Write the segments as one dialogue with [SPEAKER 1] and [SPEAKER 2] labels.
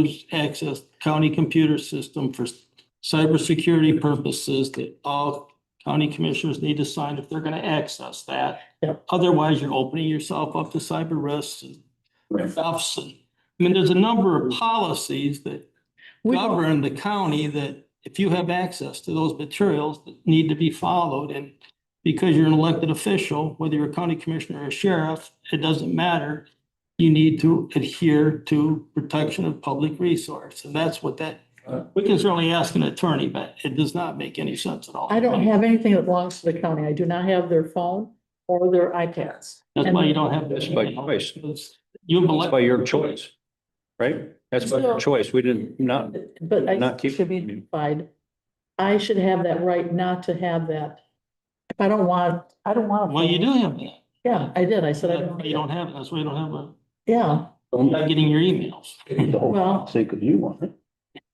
[SPEAKER 1] used access county computer system for cybersecurity purposes that all county commissioners need to sign if they're gonna access that.
[SPEAKER 2] Yep.
[SPEAKER 1] Otherwise, you're opening yourself up to cyber risks and
[SPEAKER 3] Right.
[SPEAKER 1] stuffs. and- I mean, there's a number of policies that
[SPEAKER 2] We don't-
[SPEAKER 1] govern the county that if you have access to those materials that need to be followed and because you're an elected official, whether you're a county commissioner or a sheriff, it doesn't matter. You need to adhere to protection of public resource. And that's what that, we can certainly ask an attorney, but it does not make any sense at all.
[SPEAKER 2] I don't have anything that belongs to the county. I do not have their phone or their iPads.
[SPEAKER 1] That's why you don't have.
[SPEAKER 3] That's by choice.
[SPEAKER 1] You've
[SPEAKER 3] That's by
[SPEAKER 1] elected,
[SPEAKER 3] your choice, right? That's by your choice. We didn't, not,
[SPEAKER 2] But I
[SPEAKER 3] Not keep-
[SPEAKER 2] should be notified. I should have that right not to have that. If I don't want, I don't want. a
[SPEAKER 1] well, you
[SPEAKER 2] phone.
[SPEAKER 1] do have that.
[SPEAKER 2] Yeah, I did. I said I
[SPEAKER 1] That's why You
[SPEAKER 2] don't.
[SPEAKER 1] don't have, that's why you don't have a,
[SPEAKER 2] Yeah,
[SPEAKER 1] you're not getting your emails.
[SPEAKER 2] well,
[SPEAKER 3] say, because you want it.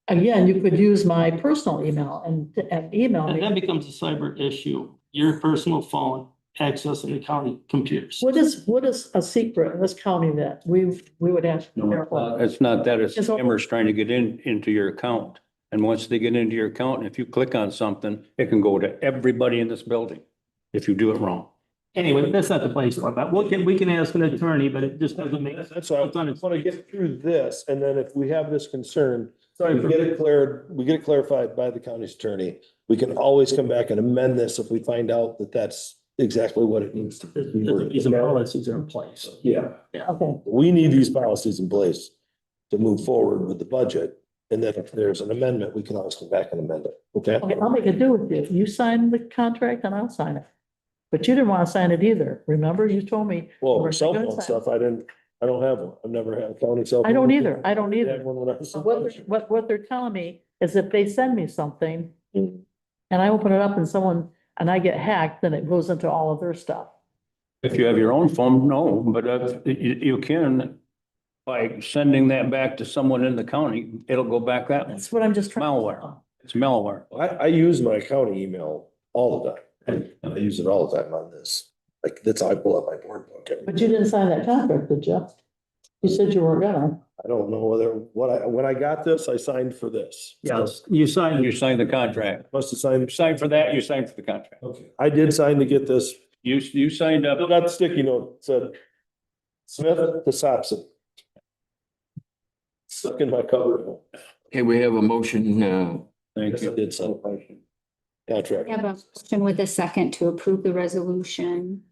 [SPEAKER 2] again, you could use my personal email and, and email
[SPEAKER 1] And that
[SPEAKER 2] me.
[SPEAKER 1] becomes a cyber issue, your personal phone accessing the county computers.
[SPEAKER 2] What is, what is a secret in this county that we, we would have? to be
[SPEAKER 3] No, uh,
[SPEAKER 2] careful?
[SPEAKER 3] It's not that, it's
[SPEAKER 2] It's all-
[SPEAKER 3] scammers trying to get in, into your account. And once they get into your account, if you click on something, it can go to everybody in this building if you do it wrong.
[SPEAKER 1] Anyway, that's not the place for that. We can, we can ask an attorney, but it just doesn't make.
[SPEAKER 4] That's that's why I
[SPEAKER 1] It's on its-
[SPEAKER 4] want to get through this, and then if we have this concern,
[SPEAKER 1] Sorry
[SPEAKER 4] we
[SPEAKER 1] for-
[SPEAKER 4] get it cleared, we get it clarified by the county's attorney. We can always come back and amend this if we find out that that's exactly what it needs to be. worded.
[SPEAKER 1] These policies are in place.
[SPEAKER 4] Yeah,
[SPEAKER 2] Okay,
[SPEAKER 4] we need these policies in place to move forward with the budget. And then if there's an amendment, we can always come back and amend it, okay?
[SPEAKER 2] okay, I'll make a deal with you. You sign the contract and I'll sign it. But you didn't want to sign it either. Remember, you told me,
[SPEAKER 4] Well, cell phone stuff, I didn't, I don't have one. I've never had a county cell.
[SPEAKER 2] I don't
[SPEAKER 4] phone.
[SPEAKER 2] either. I don't
[SPEAKER 4] I had
[SPEAKER 2] either.
[SPEAKER 4] one when I was-
[SPEAKER 2] So What, they're- what, what they're telling me is if they send me something
[SPEAKER 4] Mm.
[SPEAKER 2] and I open it up and someone, and I get hacked, then it goes into all of their stuff.
[SPEAKER 3] If you have your own phone, no, but uh, you, you can, by sending that back to someone in the county, it'll go back that way.
[SPEAKER 2] That's what I'm just trying. to
[SPEAKER 3] Malware.
[SPEAKER 2] tell.
[SPEAKER 3] It's malware.
[SPEAKER 4] I, I use my county email all the time. I use it all the time on this. Like, that's how I pull up my board book. every-
[SPEAKER 2] But you didn't sign that contract, did you? You said you were gonna.
[SPEAKER 4] I don't know whether, what I, when I got this, I signed for this.
[SPEAKER 1] Yes, you signed,
[SPEAKER 3] You signed the contract.
[SPEAKER 4] Must have
[SPEAKER 3] You
[SPEAKER 4] signed.
[SPEAKER 3] signed for that, you signed for the contract.
[SPEAKER 4] Okay. I did sign to get this.
[SPEAKER 3] You, you signed up.
[SPEAKER 4] I got the sticky note, It said Smith to Sapson. Stuck in my cover.
[SPEAKER 5] Okay, we have a motion, uh,
[SPEAKER 3] Thank you.
[SPEAKER 4] did sign. Contract.
[SPEAKER 6] I have a motion with a second to approve the resolution.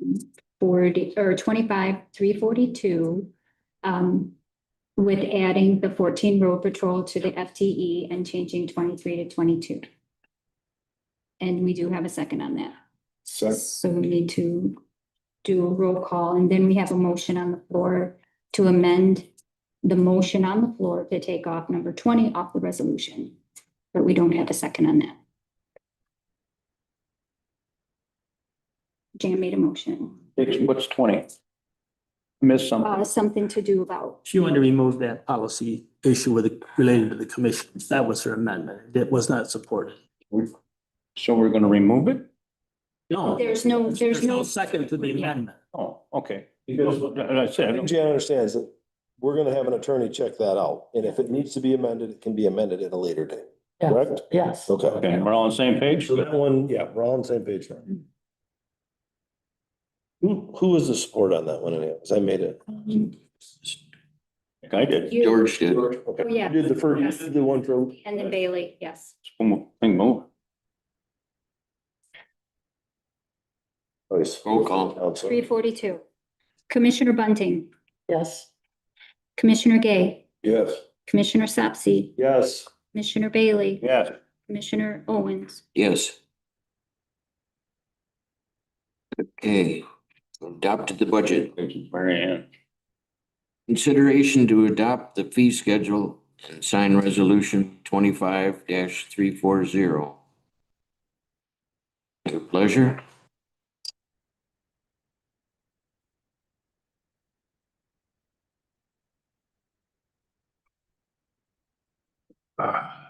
[SPEAKER 6] um, Forty, or twenty-five, three forty-two. Um, with adding the fourteen road patrol to the FTE and changing twenty-three to twenty-two. And we do have a second on that. So we need to do a roll call, and then we have a motion on the floor to amend the motion on the floor to take off number twenty off the resolution. But we don't have a second on that. Jan made a motion,
[SPEAKER 3] What's twenty? Missed
[SPEAKER 6] uh,
[SPEAKER 3] something.
[SPEAKER 6] something to do about,
[SPEAKER 1] she wanted to remove that policy issue with, the- related to the commissions. That was her amendment. That was not supported.
[SPEAKER 3] So we're gonna remove it?
[SPEAKER 1] No.
[SPEAKER 6] There's no- Oh. there's no-
[SPEAKER 1] Second to the amendment.
[SPEAKER 3] Oh, okay.
[SPEAKER 4] Because-
[SPEAKER 3] And I
[SPEAKER 4] I
[SPEAKER 3] said,
[SPEAKER 4] think Jan understands that we're gonna have an attorney check that out, and if it needs to be amended, it can be amended at a later date,
[SPEAKER 2] Yeah.
[SPEAKER 4] correct?
[SPEAKER 2] Yes.
[SPEAKER 4] Okay.
[SPEAKER 3] okay, we're all on the same page?
[SPEAKER 4] So that one, yeah, we're all on the same page now.
[SPEAKER 6] Hmm.
[SPEAKER 4] Who, who was the support on that one anyhow? 'Cause I made it.
[SPEAKER 3] I did.
[SPEAKER 6] you
[SPEAKER 5] George did.
[SPEAKER 4] Okay.
[SPEAKER 6] Oh, yeah.
[SPEAKER 4] You Did the first, you did the one for.
[SPEAKER 6] and then Bailey, yes.
[SPEAKER 3] Thing move.
[SPEAKER 5] Roll call.
[SPEAKER 6] Three forty-two. Commissioner Bunting,
[SPEAKER 2] Yes.
[SPEAKER 6] Commissioner Gay,
[SPEAKER 4] Yes.
[SPEAKER 6] Commissioner Sapsy,
[SPEAKER 4] Yes.
[SPEAKER 6] Commissioner Bailey,
[SPEAKER 3] Yes.
[SPEAKER 6] Commissioner Owens.
[SPEAKER 5] Yes. Okay, adopted the budget.
[SPEAKER 3] Mary Ann.
[SPEAKER 5] Consideration to adopt the fee schedule and sign resolution twenty-five three four zero. Your pleasure.
[SPEAKER 3] Ah.